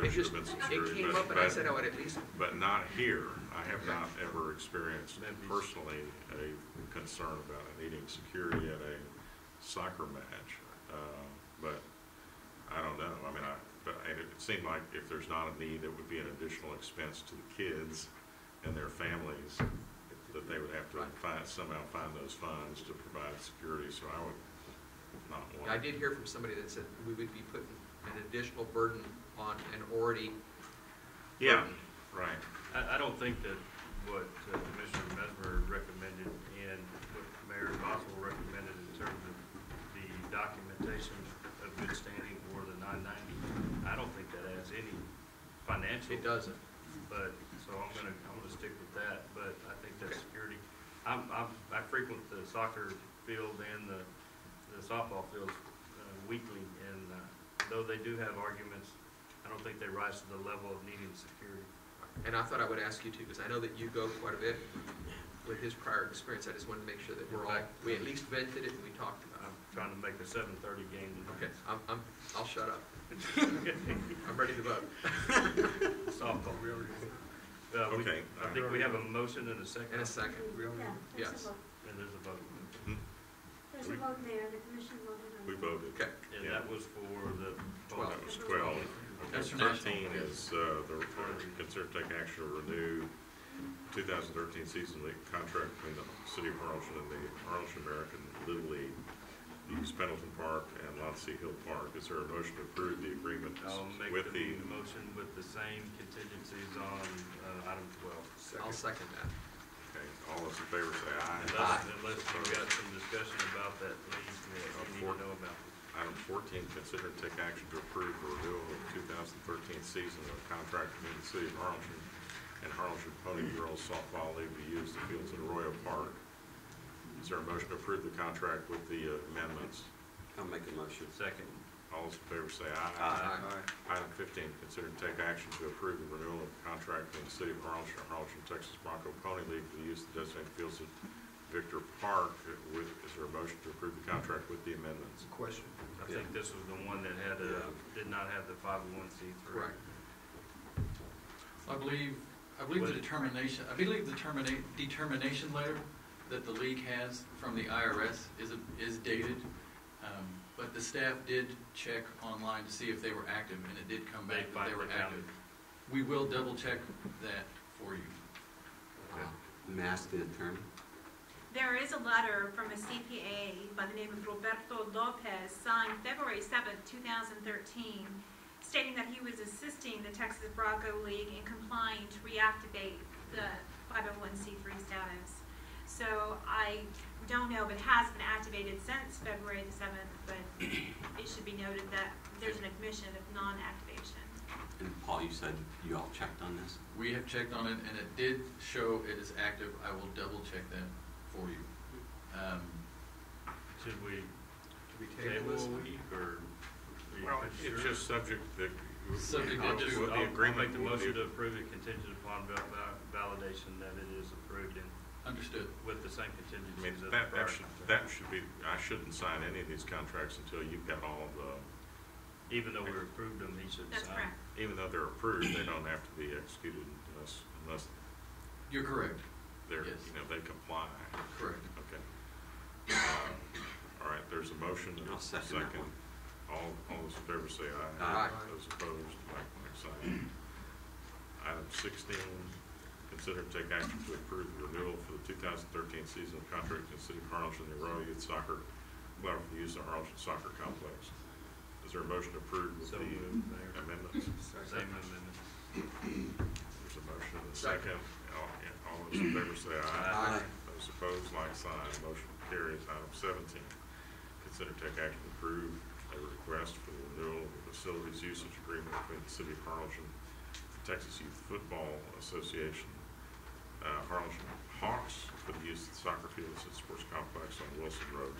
just, measurements and it screws, came but, up and I said "Oh." I but, would at least, but not here. I have not ever experienced That'd be- personally a concern about needing security at a soccer match. Uh, But I don't know, I mean, I, but I- it seemed like if there's not a need, it would be an additional expense to the kids and their families, that they would have to Right. find, somehow find those funds to provide security, so I would not want. I did hear from somebody that said we would be putting an additional burden on an already. Yeah, burdened- right. I, I don't think that what uh, Commissioner Mesmer recommended and what Mayor Boswell recommended in terms of the documentation of good standing for the nine ninety, I don't think that has any financial. It doesn't. But, so I'm gonna, I'm gonna stick with that, but I think that Okay. security, I'm, I'm, I frequent the soccer field and the, the softball fields uh, weekly, and, uh, though they do have arguments, I don't think they rise to the level of needing security. And I thought I would ask you too, because I know that you go quite a bit with his prior experience. I just wanted to make sure that we're all, we at least vented it and we talked about I'm trying to make the seven thirty game it. tonight. Okay, I'm, I'm, I'll shut up. I'm ready to vote. Softball. Uh, we, Okay, I think we have a motion and a second, In a and second. Yeah, Yes. there's a vote. there's a vote. There's We- a vote there, the commission voted on it. We voted. Okay, And Yeah. that was for the. Twelve. That was twelve. Okay, That's fine. thirteen is, uh, the, the consider to take action to renew two thousand thirteen season league contract between the city of Harlingen and the Harlingen American Little League. Use Pendleton Park and Lotsey Hill Park. Is there a motion to approve the agreement I'll make with the? the motion with the same contingencies on, uh, item twelve. I'll second that. Okay, all those in favor say aye. Unless, unless you've got some discussion about that lease that you need to know about. Item fourteen, consider to take action to approve the renewal of two thousand thirteen season of contract between the city of Harlingen and Harlingen Pony Girls Softball League to use the fields at Arroyo Park. Is there a motion to approve the contract with the uh, amendments? I'll make a motion. Uh, Second. All those in favor say Aye. aye. Item fifteen, consider to take action to approve the renewal of contract between the city of Harlingen and Harlingen Texas Bronco Pony League to use the designated fields at Victor Park. With, is there a motion to approve the contract with the amendments? Question. I think this was the one that had, uh, did not have the five oh one C three. Right. I believe, I believe the What- determination, I believe the termina- determination letter that the league has from the IRS is, a- is dated. Um, But the staff did check online to see if they were active, and it did come They back that they finally were found active. We will double check that for you. Wow. Mass the attorney. There is a letter from a CPA by the name of Roberto Lopez, signed February seventh, two 2013, stating that he was assisting the Texas Bronco League in complying to reactivate the 501c3 status. So I don't know, but has been activated since February the 7th, but it should be noted that there's an admission of non-activation. And Paul, you said you all checked on this? We have checked on it, and it did show it is active. I will double check that for you. Um, Should we Do we table table this? a week or? are you Well, it's sure? just subject that. Subject I'll just, What I'll the I'll agreement make the will be. motion to approve it contingent upon val- val- validation that it is approved and Understood. with the same I mean, contingencies as the that, prior that should, that should be, I shouldn't sign any of these contracts until you've got all the, Even though we approved them, he should sign. That's correct. even though they're approved, they don't have to be executed unless, unless You're correct, they're, Yes. you know, they comply. correct. Okay. Um, All right, there's a motion and I'll a second that second. one. All, all those in favor say aye. Aye. Those opposed, like, like sign. Item sixteen, consider to take action to approve the renewal for the two thousand thirteen season of contract in the city of Harlingen, the Royal Youth Soccer Club for the use of Harlingen Soccer Complex. Is there a motion to approve with So the moved, Mayor. amendments? Same amendment. There's a motion and a Second. second. All, yeah, all those in favor say aye. Aye. Those opposed, like sign. Motion carries. Item seventeen, consider take action to approve a request for the renewal of the facilities usage agreement between the city of Harlingen, the Texas Youth Football Association, uh, Harlingen Hawks for the use of the soccer fields at sports complex on Wilson Road.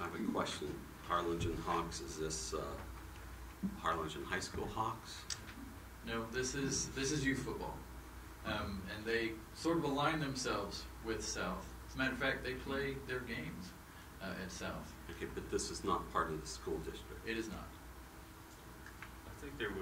I have a question. Harlingen Hawks, is this uh, Harlingen High School Hawks? No, this is this is youth football, um, and they sort of align themselves with South. As a matter of fact, they play their games uh, at South. Okay, but this is not part of the school district. It is not. I think there